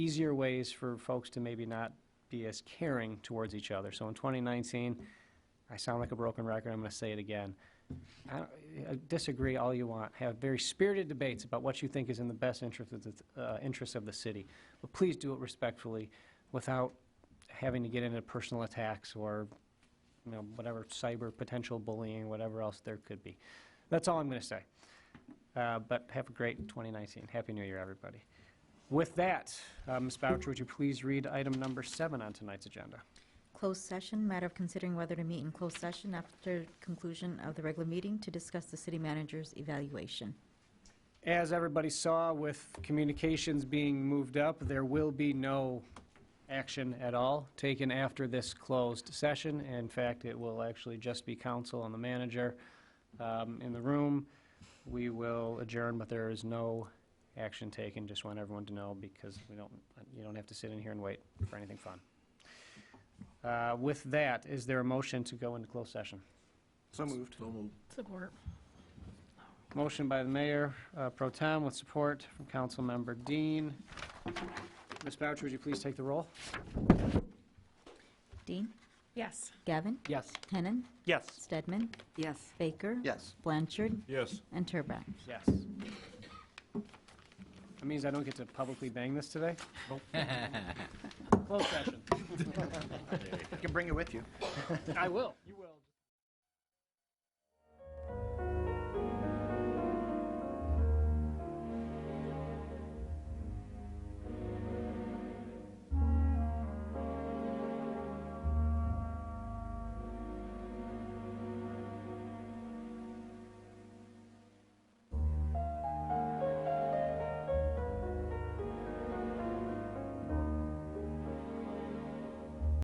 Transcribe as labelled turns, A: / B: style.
A: easier ways for folks to maybe not be as caring towards each other. So in 2019, I sound like a broken record, I'm going to say it again. I don't- uh, Disagree all you want, have very spirited debates about what you think is in the best interest of the, uh, interest of the city. But please do it respectfully, without having to get into personal attacks or, you know, whatever cyber potential bullying, whatever else there could be. That's all I'm going to say. Uh, But have a great 2019. Happy New Year, everybody. With that, uh, Ms. Boucher, would you please read item number seven on tonight's agenda?
B: Closed session, matter of considering whether to meet in closed session after conclusion of the regular meeting to discuss the city manager's evaluation.
A: As everybody saw, with communications being moved up, there will be no action at all taken after this closed session. In fact, it will actually just be council and the manager um, in the room. We will adjourn, but there is no action taken. Just want everyone to know because we don't, you don't have to sit in here and wait for anything fun. Uh, With that, is there a motion to go into closed session?
C: So moved. So moved.
D: Support.
A: Motion by the mayor, uh, pro tem, with support from Councilmember Dean. Ms. Boucher, would you please take the roll?
B: Dean?
D: Yes.
B: Gavin?
A: Yes.
B: Henan?
C: Yes.
B: Stedman?
D: Yes.
B: Baker?
C: Yes.
B: Blanchard?
C: Yes.
B: And Turbrack.
A: Yes. That means I don't get to publicly bang this today? Closed session.
C: You can bring it with you.
A: I will. You will.